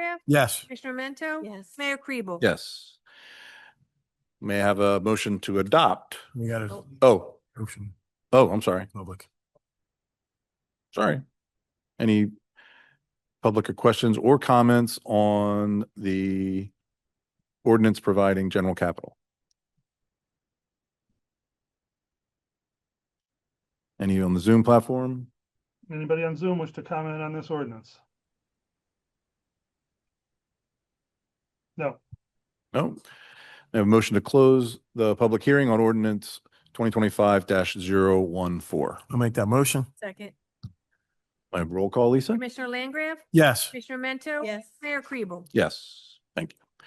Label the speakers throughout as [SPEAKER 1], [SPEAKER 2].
[SPEAKER 1] Langgraf?
[SPEAKER 2] Yes.
[SPEAKER 1] Commissioner Mento?
[SPEAKER 3] Yes.
[SPEAKER 1] Mayor Kribel?
[SPEAKER 4] Yes. May I have a motion to adopt?
[SPEAKER 2] We got a
[SPEAKER 3] Oh.
[SPEAKER 4] Oh,
[SPEAKER 2] motion,
[SPEAKER 4] oh, I'm sorry,
[SPEAKER 2] public.
[SPEAKER 4] sorry. Any public or questions or comments on the ordinance providing general capital? Any on the Zoom platform?
[SPEAKER 5] Anybody on Zoom wish to comment on this ordinance? No,
[SPEAKER 4] No. I have a motion to close the public hearing on ordinance twenty twenty-five 14
[SPEAKER 2] I'll make that motion.
[SPEAKER 1] Second.
[SPEAKER 4] My roll call, Lisa?
[SPEAKER 1] Commissioner Langgraf?
[SPEAKER 2] Yes.
[SPEAKER 1] Commissioner Mento?
[SPEAKER 3] Yes.
[SPEAKER 1] Mayor Kribel?
[SPEAKER 4] Yes, thank you.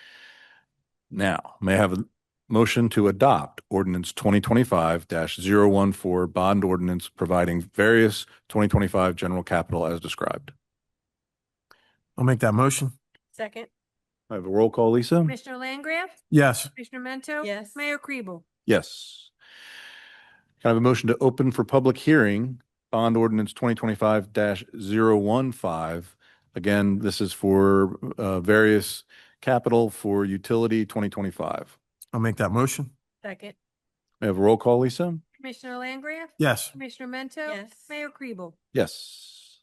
[SPEAKER 4] Now, may I have a motion to adopt ordinance twenty twenty-five 14 bond ordinance providing various twenty twenty-five general capital as described?
[SPEAKER 2] I'll make that motion.
[SPEAKER 1] Second.
[SPEAKER 4] I have a roll call, Lisa?
[SPEAKER 1] Commissioner Langgraf?
[SPEAKER 2] Yes.
[SPEAKER 1] Commissioner Mento?
[SPEAKER 3] Yes.
[SPEAKER 1] Mayor Kribel?
[SPEAKER 4] Yes. Can I have a motion to open for public hearing, bond ordinance twenty twenty-five 15 Again, this is for uh various capital for utility twenty twenty-five.
[SPEAKER 2] I'll make that motion.
[SPEAKER 1] Second.
[SPEAKER 4] May I have a roll call, Lisa?
[SPEAKER 1] Commissioner Langgraf?
[SPEAKER 2] Yes.
[SPEAKER 1] Commissioner Mento?
[SPEAKER 3] Yes.
[SPEAKER 1] Mayor Kribel?
[SPEAKER 4] Yes.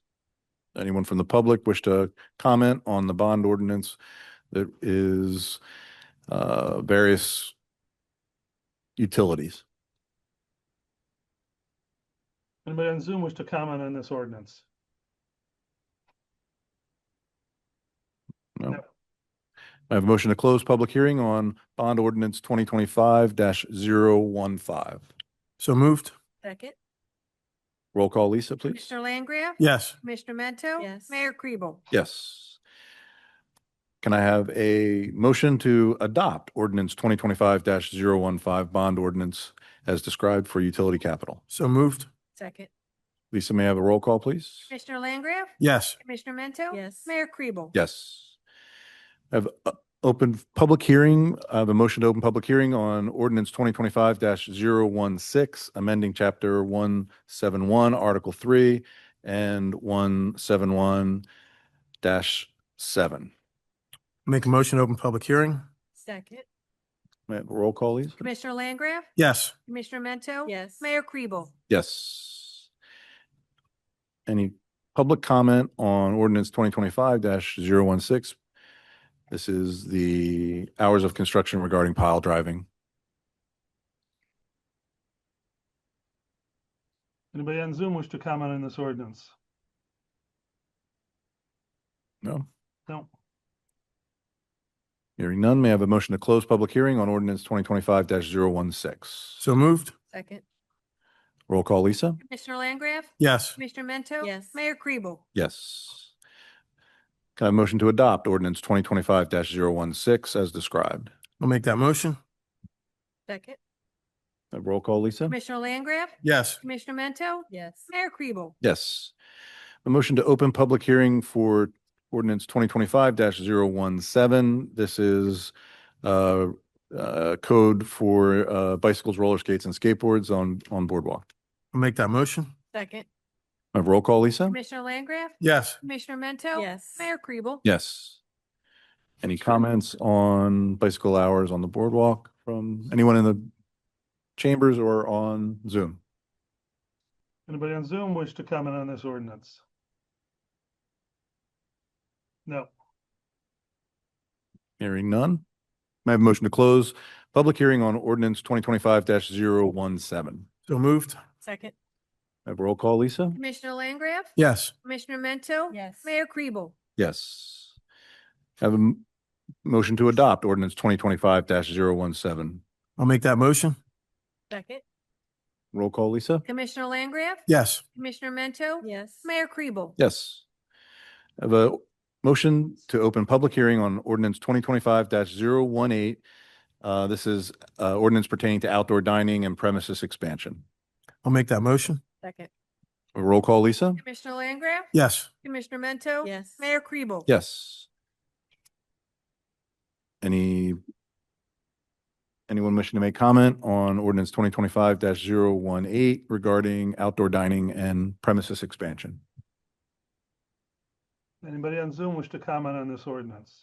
[SPEAKER 4] Anyone from the public wish to comment on the bond ordinance that is uh, various utilities?
[SPEAKER 5] anybody on Zoom wish to comment on this ordinance?
[SPEAKER 4] No.
[SPEAKER 5] No.
[SPEAKER 4] I have a motion to close public hearing on bond ordinance twenty twenty-five 15
[SPEAKER 2] So moved.
[SPEAKER 1] Second.
[SPEAKER 4] Roll call, Lisa, please.
[SPEAKER 1] Commissioner Langgraf?
[SPEAKER 2] Yes.
[SPEAKER 1] Commissioner Mento?
[SPEAKER 3] Yes.
[SPEAKER 1] Mayor Kribel?
[SPEAKER 4] Yes. Can I have a motion to adopt ordinance twenty twenty-five 15 bond ordinance as described for utility capital?
[SPEAKER 2] So moved.
[SPEAKER 1] Second.
[SPEAKER 4] Lisa, may I have a roll call, please?
[SPEAKER 1] Commissioner Langgraf?
[SPEAKER 2] Yes.
[SPEAKER 1] Commissioner Mento?
[SPEAKER 3] Yes.
[SPEAKER 1] Mayor Kribel?
[SPEAKER 4] Yes. I've uh, opened public hearing, I have a motion to open public hearing on ordinance twenty twenty-five 16 amending chapter one seven one, article three, and one seven one seven.
[SPEAKER 2] Make a motion to open public hearing.
[SPEAKER 3] Second.
[SPEAKER 4] May I have a Roll call, please.
[SPEAKER 1] Commissioner Langgraf?
[SPEAKER 2] Yes.
[SPEAKER 1] Commissioner Mento?
[SPEAKER 3] Yes.
[SPEAKER 1] Mayor Kribel?
[SPEAKER 4] Yes. Any public comment on ordinance twenty twenty-five 16 This is the hours of construction regarding pile driving.
[SPEAKER 5] Anybody on Zoom wish to comment on this ordinance?
[SPEAKER 4] No?
[SPEAKER 5] No,
[SPEAKER 4] Hearing none, may I have a motion to close public hearing on ordinance twenty twenty-five 16
[SPEAKER 2] So moved.
[SPEAKER 3] Second.
[SPEAKER 4] Roll call, Lisa?
[SPEAKER 1] Commissioner Langgraf?
[SPEAKER 2] Yes.
[SPEAKER 1] Commissioner Mento?
[SPEAKER 3] Yes.
[SPEAKER 1] Mayor Kribel?
[SPEAKER 4] Yes. Can I have a motion to adopt ordinance twenty twenty-five 16 as described?
[SPEAKER 2] I'll make that motion.
[SPEAKER 3] Second.
[SPEAKER 4] Uh, Roll call, Lisa?
[SPEAKER 1] Commissioner Langgraf?
[SPEAKER 2] Yes.
[SPEAKER 1] Commissioner Mento?
[SPEAKER 3] Yes.
[SPEAKER 1] Mayor Kribel?
[SPEAKER 4] Yes. A motion to open public hearing for ordinance twenty twenty-five 17 This is uh, uh, code for uh, bicycles, roller skates, and skateboards on, on boardwalk.
[SPEAKER 2] I'll make that motion.
[SPEAKER 3] Second.
[SPEAKER 4] May I have a Roll call, Lisa?
[SPEAKER 1] Commissioner Langgraf?
[SPEAKER 2] Yes.
[SPEAKER 1] Commissioner Mento?
[SPEAKER 3] Yes.
[SPEAKER 1] Mayor Kribel?
[SPEAKER 4] Yes. Any comments on bicycle hours on the boardwalk from anyone in the chambers or on Zoom?
[SPEAKER 5] anybody on Zoom wish to comment on this ordinance? No,
[SPEAKER 4] Hearing none. May I have a motion to close public hearing on ordinance twenty twenty-five 17
[SPEAKER 2] So moved.
[SPEAKER 3] Second.
[SPEAKER 4] I have a roll call, Lisa?
[SPEAKER 1] Commissioner Langgraf?
[SPEAKER 2] Yes.
[SPEAKER 1] Commissioner Mento?
[SPEAKER 3] Yes.
[SPEAKER 1] Mayor Kribel?
[SPEAKER 4] Yes. Have a m- motion to adopt ordinance twenty twenty-five 17
[SPEAKER 2] I'll make that motion.
[SPEAKER 3] Second.
[SPEAKER 4] Roll call, Lisa?
[SPEAKER 1] Commissioner Langgraf?
[SPEAKER 2] Yes.
[SPEAKER 1] Commissioner Mento?
[SPEAKER 3] Yes.
[SPEAKER 1] Mayor Kribel?
[SPEAKER 4] Yes. I Have a motion to open public hearing on ordinance twenty twenty-five 18 Uh, this is, uh, ordinance pertaining to outdoor dining and premises expansion.
[SPEAKER 2] I'll make that motion.
[SPEAKER 3] Second.
[SPEAKER 4] A Roll call, Lisa?
[SPEAKER 1] Commissioner Langgraf?
[SPEAKER 2] Yes.
[SPEAKER 1] Commissioner Mento?
[SPEAKER 3] Yes.
[SPEAKER 1] Mayor Kribel?
[SPEAKER 4] Yes. Any, anyone wishing to make comment on ordinance twenty twenty-five 18 regarding outdoor dining and premises expansion?
[SPEAKER 5] Anybody on Zoom wish to comment on this ordinance?